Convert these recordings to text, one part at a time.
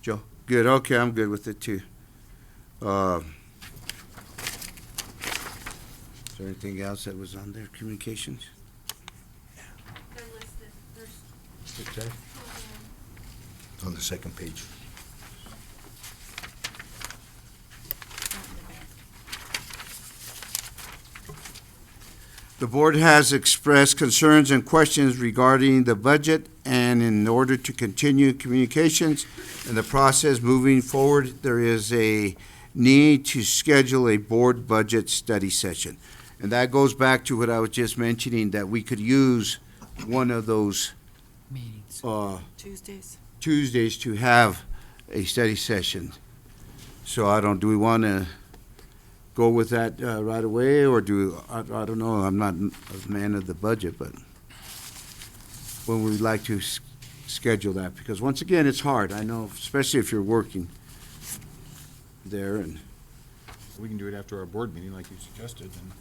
Joe? Good, okay, I'm good with it too. Uh, Is there anything else that was on there, communications? They're listed, there's two of them. On the second page. The board has expressed concerns and questions regarding the budget, and in order to continue communications and the process moving forward, there is a need to schedule a board budget study session. And that goes back to what I was just mentioning, that we could use one of those meetings. uh, Tuesdays. Tuesdays to have a study session. So I don't, do we want to go with that uh, right away, or do, I I don't know, I'm not a man of the budget, but when we'd like to s- schedule that, because once again, it's hard, I know, especially if you're working there, and We can do it after our board meeting, like you suggested, and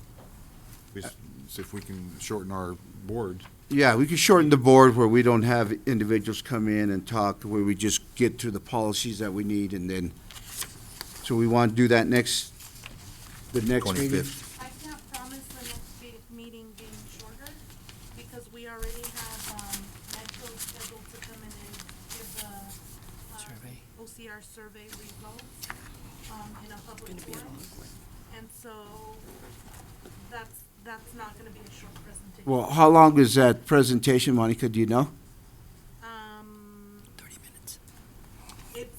we s- see if we can shorten our board. Yeah, we could shorten the board where we don't have individuals come in and talk, where we just get to the policies that we need and then, so we want to do that next, the next meeting? 25th. I can't promise the next be- meeting being shorter, because we already have, um, Metro scheduled to come in and give the, Survey. uh, OCR survey results, um, in a public Gonna be a forum. long one. And so, that's, that's not gonna be a short presentation. Well, how long is that presentation, Monica, do you know? Um, Thirty minutes. it's,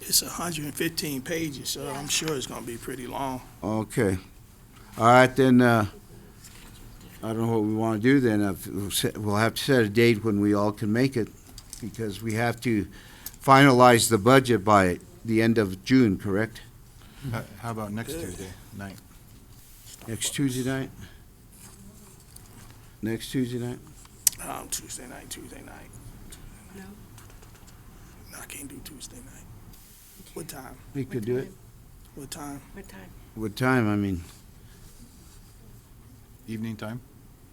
It's hundred and fifteen pages, so I'm sure it's gonna be pretty long. Okay. All right, then, uh, I don't know what we want to do then. If- we'll set- We'll have to set a date when we all can make it, because we have to finalize the budget by the end of June, correct? How- How about next Tuesday night? Next Tuesday night? Next Tuesday night? Um, Tuesday night, Tuesday night. No? No, I can't do Tuesday night. What time? We could do it. What time? What time? What time, I mean? Evening time?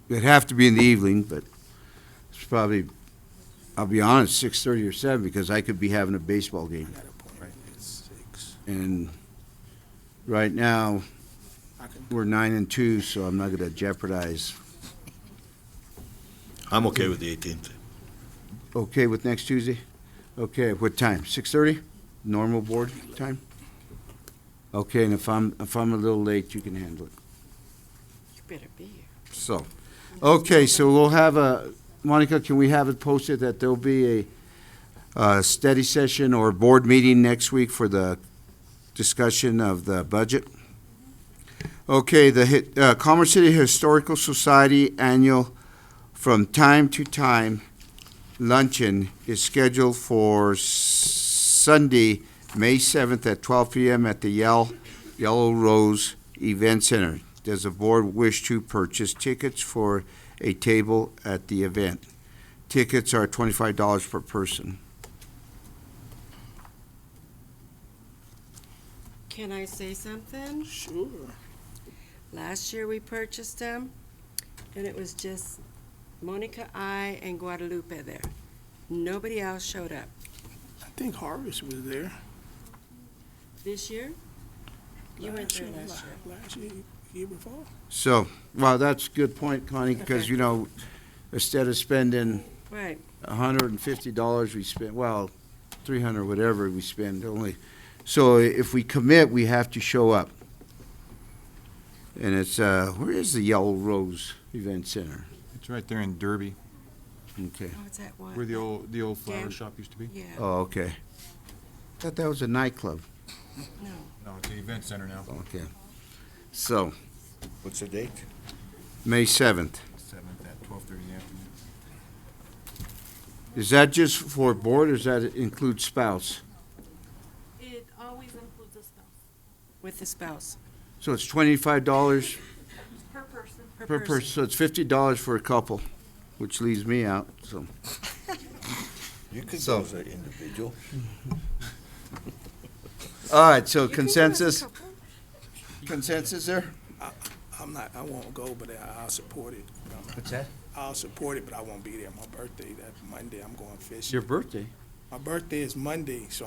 It'd have to be in the evening, but it's probably, I'll be honest, six thirty or seven, because I could be having a baseball I game. got an appointment at six. And right now, I can, we're nine and two, so I'm not gonna jeopardize. I'm okay with the eighteenth. Okay with next Tuesday? Okay, what time? Six thirty? Normal board time? Okay, and if I'm, if I'm a little late, you can handle it. You better be here. So, okay, so we'll have a, Monica, can we have it posted that there'll be a, uh study session or board meeting next week for the discussion of the budget? Okay, the hit, uh, Commerce City Historical Society Annual From Time to Time Luncheon is scheduled for s- Sunday, May seventh at twelve PM at the Yell, Yellow Rose Event Center. Does the board wish to purchase tickets for a table at the event? Tickets are twenty-five dollars per person. Can I say something? sure. Last year we purchased them, and it was just Monica, I, and Guadalupe there. Nobody else showed up. I think Harvest was there. This year? You went Last there year, last la- year. Last year, year before. So, well, that's a good point, Connie, because, Okay. you know, instead of spending Right. hundred and fifty dollars we spend, well, three hundred, whatever we spend only. So if we commit, we have to show up. And it's, uh, where is the Yellow Rose Event Center? It's right there in Derby, Okay, Oh, it's that one. where the old, the old flower Dan- shop used to be. Yeah, oh, okay. Thought that was a nightclub. no. No, it's the event center now. Okay. So, What's the date? May seventh. Seventh at twelve thirty in the afternoon. Is that just for board or does that include spouse? it always includes a spouse, With the spouse. So it's twenty-five dollars per person. per person, so it's fifty dollars for a couple, which leaves me out, so. You could So- go as an individual. All right, so You can do it, consensus, couple. consensus there? I'm not, I won't go, but I, I'll support it. Um, What's that? I'll support it, but I won't be there. My birthday, that Monday, I'm going fishing. Your birthday. My birthday is Monday, so